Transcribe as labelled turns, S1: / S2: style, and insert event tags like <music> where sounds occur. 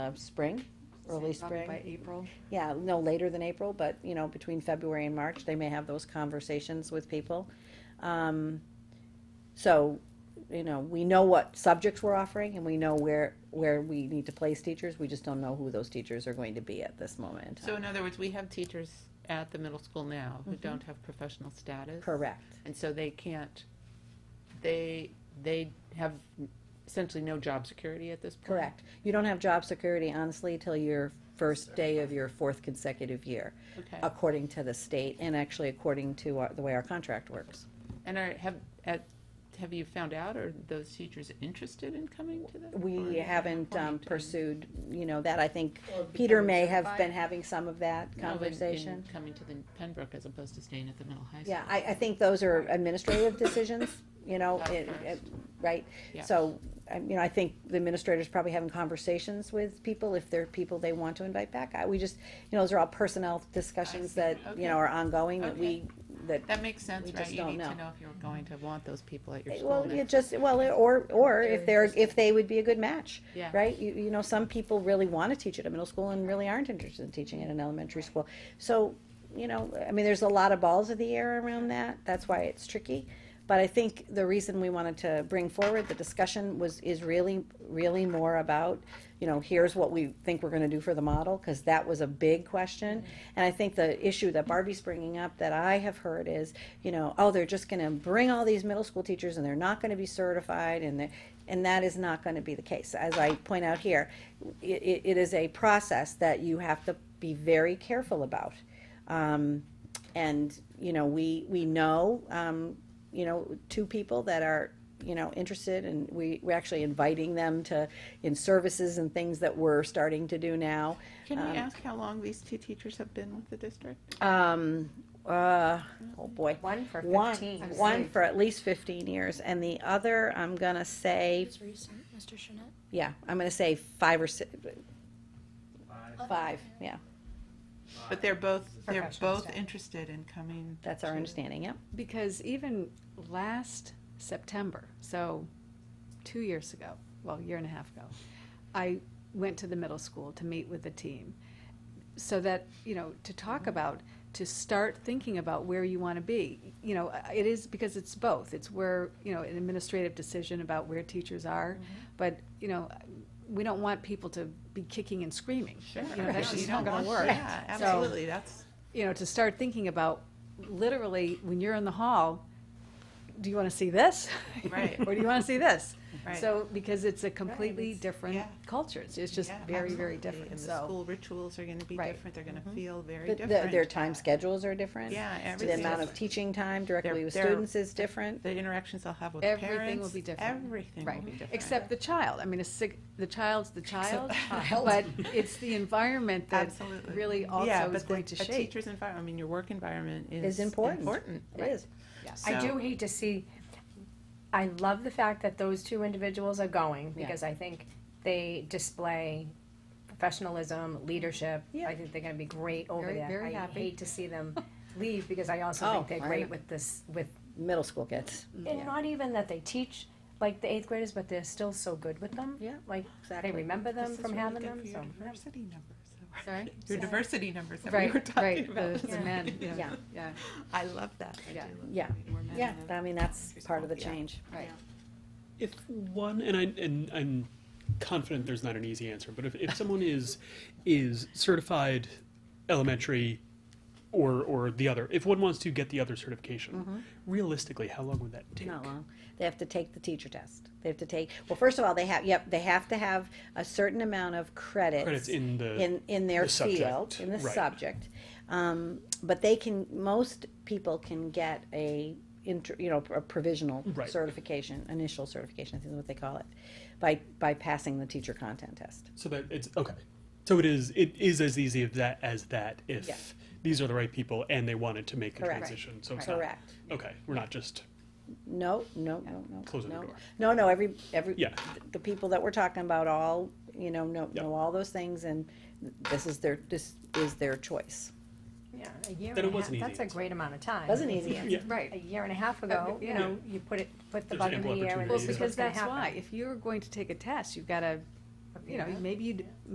S1: uh, spring, early
S2: Say probably
S1: spring.
S2: By April.
S1: Yeah, no later than April, but, you know, between February and March, they may have those conversations with people. Um, So, you know, we know what subjects we're offering and we know where, where we need to place teachers. We just don't know who those teachers are going to be at this moment. in
S3: So
S1: time. Mm-hmm.
S3: in other words, we have teachers at the middle school now who don't have professional status.
S1: Correct.
S3: And so they can't, they, they have essentially no job security at this point.
S1: Correct. You don't have job security honestly till your first day of your fourth consecutive year,
S3: Okay.
S1: according to the state and actually according to our- the way our contract works.
S3: And are, have, at, have you found out, are those teachers interested in coming to that?
S1: We
S3: Or-
S1: haven't um,
S3: Point.
S1: pursued, you know, that I think
S2: Or
S1: Peter
S2: becoming
S1: may have
S2: certified.
S1: been having some of that
S3: No, in- in
S1: conversation.
S3: Coming to the Pembroke as opposed to staying at the middle high school.
S1: Yeah, I, I think those are administrative decisions, you know,
S3: Not
S1: it-
S3: ours.
S1: it- right?
S3: Yeah.
S1: So, I- you know, I think the administrators probably having conversations with people, if there are people they want to invite back. I- We just, you know, those are all personnel discussions that, you
S3: Okay.
S1: know, are ongoing, that we,
S3: Okay.
S1: that,
S3: That makes sense,
S1: We
S3: right?
S1: just
S3: You
S1: don't
S3: need to
S1: know.
S3: know if you're going to want those people at your school
S1: well, you
S3: next.
S1: just, well, or, or if they're, if they would be a good match.
S3: Yeah.
S1: Right? You, you know, some people really want to teach at a middle school and really aren't interested in teaching at an elementary school. So, you know, I mean, there's a lot of balls of the air around that. That's why it's tricky. But I think the reason we wanted to bring forward the discussion was, is really, really more about, you know, here's what we think we're going to do for the model, because that was a big question. And I think the issue that Barbie's bringing up that I have heard is, you know, oh, they're just going to bring all these middle school teachers and they're not going to be certified and they're, and that is not going to be the case. As I point out here, i- i it is a process that you have to be very careful about. Um, and, you know, we, we know, um, you know, two people that are, you know, interested and we, we're actually inviting them to, in services and things that we're starting to do now.
S3: Can
S1: um,
S3: we ask how long these two teachers have been with the district?
S1: Um, uh, oh boy.
S4: One for
S1: One,
S4: fifteen.
S1: one for at least fifteen years and the other, I'm gonna say,
S5: It's recent, Mr. Shinet.
S1: yeah, I'm gonna say five or six, five, yeah.
S3: But they're both, they're
S4: Professional
S3: both
S4: staff.
S3: interested in coming.
S1: That's our
S3: to-
S1: understanding, yep.
S2: Because even last September, so two years ago, well, a year and a half ago, I went to the middle school to meet with the team. So that, you know, to talk about, to start thinking about where you want to be. You know, it is because it's both. It's where, you know, an administrative decision about where teachers are. But, you know, we don't want people to be kicking and screaming.
S3: Sure.
S2: You know, that's
S3: No,
S2: just
S3: you
S2: not
S3: don't
S2: going to
S3: want-
S2: work.
S3: Yeah,
S2: So-
S3: absolutely, that's.
S2: you know, to start thinking about literally when you're in the hall, do you want to see this? <laughs>
S3: Right.
S2: or do you want to see this?
S3: Right.
S2: So, because it's a completely
S4: it's-
S2: different
S3: yeah.
S2: culture. It's it's just
S3: Yeah,
S2: very, very
S3: absolutely.
S2: different.
S3: And the
S2: So,
S3: school rituals are gonna be
S2: Right. Mm-hmm.
S3: different, they're gonna feel very
S1: But the-
S3: different.
S1: Their time schedules are different.
S3: Yeah,
S1: The
S3: everything.
S1: amount of
S3: is-
S1: teaching time directly
S3: They're-
S1: with
S3: they're-
S1: students is different.
S3: The interactions they'll have with parents.
S2: Everything will be different.
S3: Everything will
S2: right.
S3: be different.
S2: Except the child. I mean, a sig- the child's the child,
S3: <laughs>
S4: child.
S2: but it's the environment that
S3: Absolutely.
S2: really also
S3: Yeah,
S2: is
S3: but
S2: going
S3: the-
S2: to
S3: a
S2: shape.
S3: teacher's environment, I mean, your work environment
S1: Is
S3: is.
S1: important.
S3: Important.
S1: It is.
S4: I
S3: So-
S4: do hate to see, I love the fact that those two individuals are going, because I think they display professionalism, leadership.
S2: Yeah.
S4: I think they're gonna be great over
S2: Very-
S4: there.
S2: very happy.
S4: I hate to see them leave, because I also
S1: Oh,
S4: think they're
S1: I
S4: great
S1: know.
S4: with this, with,
S1: Middle school kids.
S4: and not even that they teach, like, the eighth graders, but they're still so good with them.
S1: Yeah,
S4: Like, they
S1: exactly.
S4: remember
S3: This
S4: them
S3: is
S4: from
S3: really
S4: having
S3: good
S4: them,
S3: for
S4: so.
S3: Your diversity numbers. <laughs>
S2: Sorry?
S3: Your
S4: Yeah.
S3: diversity numbers that we were
S2: Right,
S3: talking
S2: right.
S3: about. <laughs>
S2: The, the men. you know,
S1: Yeah.
S2: Yeah.
S3: I love that. I
S2: Yeah.
S3: do love
S1: Yeah.
S3: having more men
S1: Yeah,
S3: in the-
S1: I mean, that's part of the change.
S2: Right.
S6: if one and I and I'm confident there's not an easy answer, but if, if someone is is certified elementary or or the other, if one wants to get the other certification, realistically, how long would that take?
S1: Mm-hmm. Not long. They have to take the teacher test. They have to take, well, first of all, they have, yep, they have to have a certain amount of credits.
S6: Credits in the-
S1: In, in their
S6: the subject,
S1: field, in the
S6: right.
S1: subject. Um, but they can, most people can get a inter, you know, a provisional
S6: Right.
S1: certification, initial certification, I think is what they call it, by, by passing the teacher content test.
S6: So that it's okay. So it is it is as easy as that as that if
S1: Yeah.
S6: these are the right people and they wanted to make the
S1: Correct.
S6: transition. So it's not-
S1: Correct.
S6: okay, we're not just
S1: No, no, no, no.
S6: Closing the
S1: no.
S6: door.
S1: No, no, every, every,
S6: Yeah.
S1: the people that we're talking about all, you know, know,
S6: Yeah.
S1: know all those things and this is their, this is their choice.
S4: Yeah, a year
S6: Then
S4: and
S6: it
S4: a
S6: was
S4: half,
S6: an easy
S4: that's a
S6: answer.
S4: great amount of time.
S1: Wasn't easy.
S6: yeah.
S2: Right.
S4: a year and a half ago, you
S2: yeah.
S4: know, you put it, put the
S6: There's
S4: bug in
S6: ample
S4: the air and
S6: opportunity,
S2: Well,
S4: this is
S6: yeah.
S2: because
S4: what's gonna
S2: that's
S4: happen.
S2: why, if you're going to take a test, you've got to, you know, maybe you'd,